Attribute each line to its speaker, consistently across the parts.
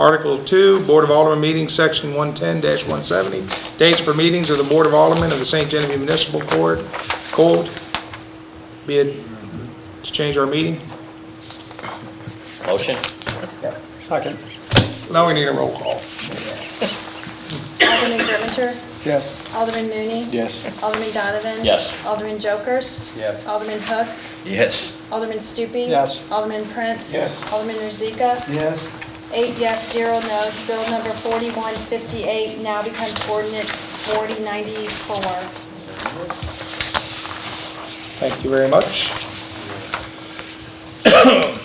Speaker 1: Article 2, Board of Aldermen meetings, Section 110-170, dates for meetings of the Board of Aldermen of the St. Genevieve Municipal Court, Court, be it, to change our meeting.
Speaker 2: Motion?
Speaker 3: Second.
Speaker 1: Now we need a roll call.
Speaker 4: Alderman Grimminger?
Speaker 3: Yes.
Speaker 4: Alderman Mooney?
Speaker 3: Yes.
Speaker 4: Alderman Donovan?
Speaker 2: Yes.
Speaker 4: Alderman Jokers?
Speaker 3: Yes.
Speaker 4: Alderman Hook?
Speaker 2: Yes.
Speaker 4: Alderman Stupi?
Speaker 3: Yes.
Speaker 4: Alderman Prince?
Speaker 3: Yes.
Speaker 4: Alderman Rozika?
Speaker 3: Yes.
Speaker 4: Eight yes, zero no's. Bill number 4158 now becomes ordinance 4094.
Speaker 1: Thank you very much.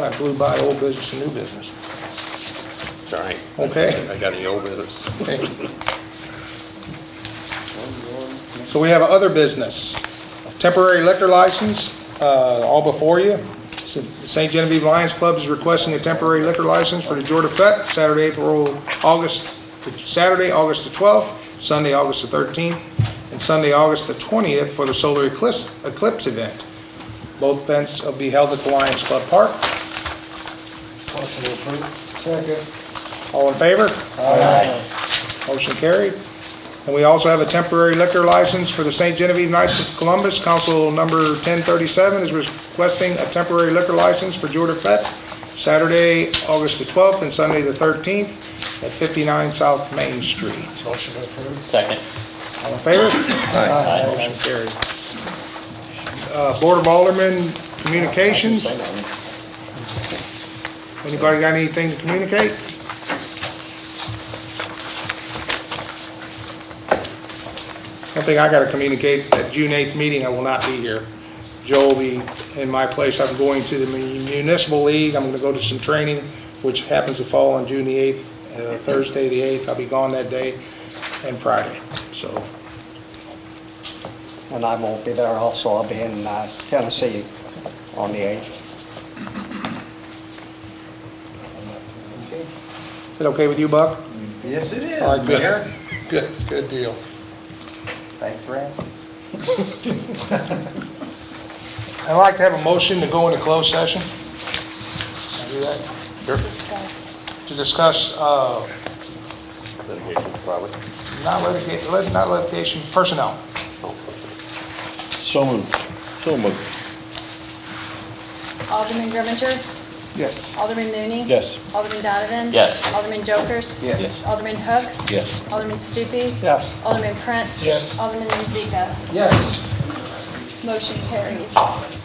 Speaker 1: Man, I blew by old business and new business.
Speaker 5: It's all right.
Speaker 1: Okay.
Speaker 5: I got any old business.
Speaker 1: So we have other business. Temporary liquor license, uh, all before you. St. Genevieve Lions Club is requesting a temporary liquor license for the Jordan Fett, Saturday, April, August, Saturday, August the 12th, Sunday, August the 13th, and Sunday, August the 20th for the solar eclipse, eclipse event. Both events will be held at the Lions Club Park.
Speaker 3: Second.
Speaker 1: All in favor? Motion carried. And we also have a temporary liquor license for the St. Genevieve Knights of Columbus. Council number 1037 is requesting a temporary liquor license for Jordan Fett, Saturday, August the 12th and Sunday the 13th at 59 South Main Street.
Speaker 3: Motion approved.
Speaker 2: Second?
Speaker 1: All in favor? Aye. Motion carried. Uh, Board of Aldermen Communications. Anybody got anything to communicate? I think I got to communicate that June 8th meeting, I will not be here. Joe will be in my place. I'm going to the municipal league. I'm going to go to some training, which happens to fall on June the 8th, uh, Thursday the 8th. I'll be gone that day and Friday. So
Speaker 3: And I won't be there also, I'll be in uh, Tennessee on the 8th.
Speaker 1: Is it okay with you, Buck?
Speaker 3: Yes, it is.
Speaker 1: All right, good. Good, good deal.
Speaker 3: Thanks, Rand.
Speaker 1: I'd like to have a motion to go into closed session. Can I do that?
Speaker 4: to discuss.
Speaker 1: To discuss, uh,
Speaker 5: Litigation, probably.
Speaker 1: not litigation, not litigation, personnel.
Speaker 5: Oh, okay.
Speaker 6: So moved. So moved.
Speaker 4: Alderman Grimminger?
Speaker 1: Yes.
Speaker 4: Alderman Mooney?
Speaker 6: Yes.
Speaker 4: Alderman Donovan?
Speaker 2: Yes.
Speaker 4: Alderman Jokers?
Speaker 3: Yes.
Speaker 4: Alderman Hook?
Speaker 6: Yes.
Speaker 4: Alderman Stupi?
Speaker 3: Yes.
Speaker 4: Alderman Prince?
Speaker 1: Yes.
Speaker 4: Alderman Rozika?
Speaker 3: Yes.
Speaker 4: Motion carries.